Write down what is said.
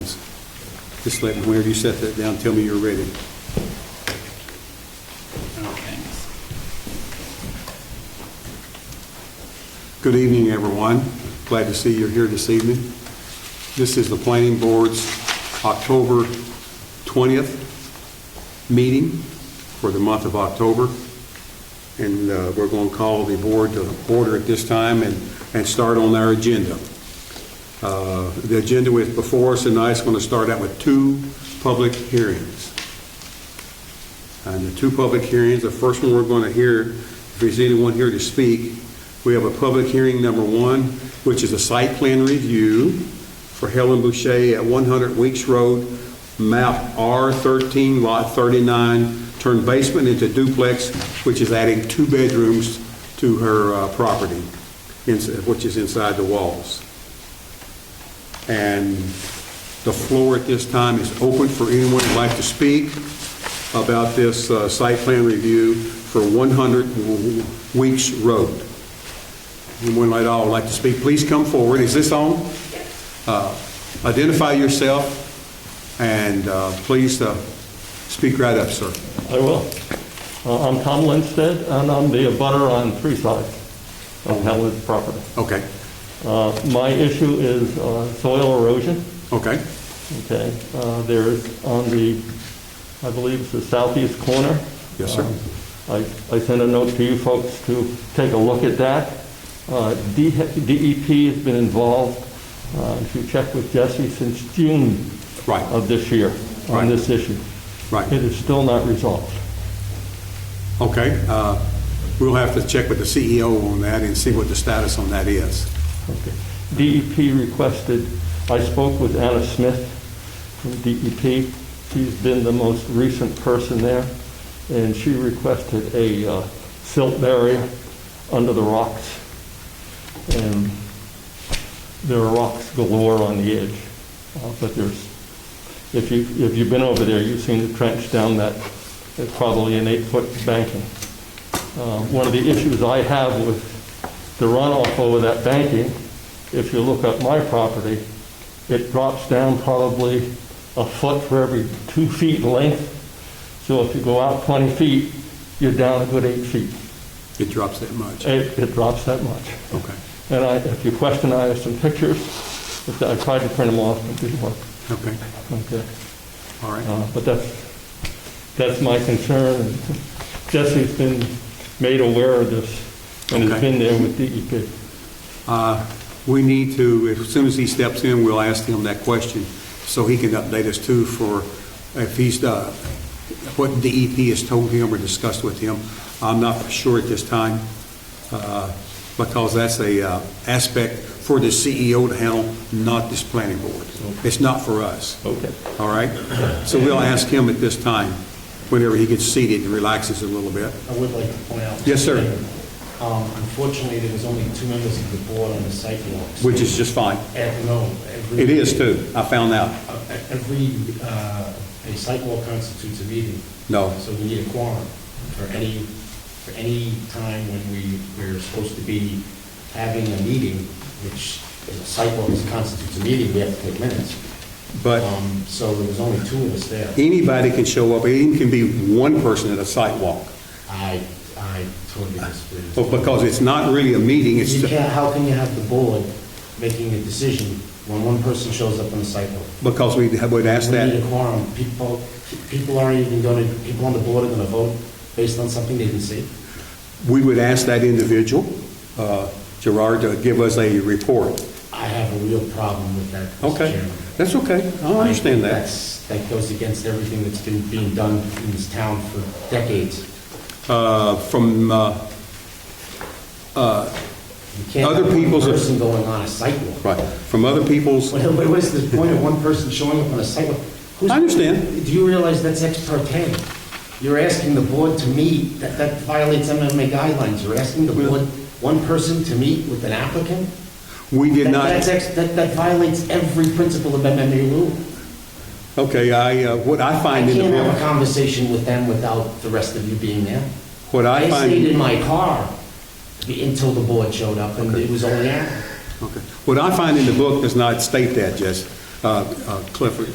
Just let, whenever you set that down, tell me you're ready. Okay. Good evening, everyone. Glad to see you're here this evening. This is the Planning Board's October 20th meeting for the month of October. And uh, we're going to call the board to order at this time and, and start on our agenda. Uh, The agenda is before us tonight. It's going to start out with two public hearings. And Uh, the two public hearings, the first one we're going to hear, if there's anyone here to speak, we have a public hearing number one, which is a site plan review for Helen Boucher at 100 Weeks Road, map R13, lot 39, turn basement into duplex, which is adding two bedrooms to her uh, property, ins- which is inside the walls. And the floor at this time is open for anyone who'd like to speak about this uh, site plan review for 100 Weeks Road. Anyone at all would like to speak, please come forward. Is this on? Uh, Identify yourself, and uh, please uh, speak right up, sir. I will. Uh, I'm Tom Lindstedt, and I'm the abutter on three sides of Helen's property. Okay, Uh, My issue is uh, soil erosion, okay, okay? Uh, There's on the, I believe it's the southeast corner. Yes, sir. Uh, I I sent a note to you folks to take a look at that. Uh, D- DEP has been involved, uh, if you check with Jesse, since June right, of this year Right. on this issue. It right, is still not resolved. okay. uh, We'll have to check with the CEO on that and see what the status on that is. Okay. DEP requested, I spoke with Anna Smith from DEP. She's been the most recent person there, and she requested a uh, silt barrier under the rocks. And there are rocks galore on the edge, uh, but there's, if you, if you've been over there, you've seen the trench down that, it's probably an eight-foot banking. Uh, One of the issues I have with the runoff over that banking, if you look at my property, it drops down probably a foot for every two feet in length. So if you go out 20 feet, you're down a good eight feet. It drops that much. It, it drops that much. Okay, And I, if you question, I have some pictures. If I tried to print them off, but it didn't work. okay, Okay. all right. Uh, But that's, that's my concern. Jesse's been made aware of this and has Okay. been there with E DEP. Uh, We need to, as soon as he steps in, we'll ask him that question, so he can update us too for if he's, uh, what DEP has told him or discussed with him. I'm not sure at this time, uh, because that's a uh, aspect for the CEO to handle, not this planning board. It's not for us. Okay. All right? So we'll ask him at this time, whenever he gets seated and relaxes a little bit. I would like to point out. Yes, sir. Um, Unfortunately, there was only two members of the board on the sidewalks. Which is just fine. And no, every. It is too, I found out. Uh, Every, uh, a sidewalk constitutes a meeting. No. So we need a quorum for any, for any time when we, we're supposed to be having a meeting, which is a sidewalk constitutes a meeting, we have to take minutes. But- Um, So there was only two of us there. anybody can show up, it can be one person at a site walk, I, I totally disagree. Oh, But because it's not really a meeting, it's, You can't, how can you have the board making a decision when one person shows up on the sidewalk? because we would ask We need a that, quorum, people, people aren't even going to, people on the board are going to vote based on something they didn't see. we would ask that individual, uh, Gerard, to give us a report. I have a real problem with that, Mr. Okay, Chairman. that's okay, I understand that. That's, that goes against everything that's been being done in this town for decades. Uh, From, uh, You can't Other have one people's- person going on a sidewalk. right, from other people's, What what is the point of one person showing up on a sidewalk? Who's- I understand. Do you realize that's ex per ten? You're asking the board to meet, that, that violates MMA guidelines. You're asking the board, one person to meet with an applicant? we did That- not... That's ex, that, that violates every principle of MMA rule. Okay, I, uh, what I I find in the... can't have a conversation with them without the rest of you being there. What I find- stayed in my car until the board showed up, and it was only Anna. Okay. What I find in the book does not state that, Jess, Uh, uh, Clifford.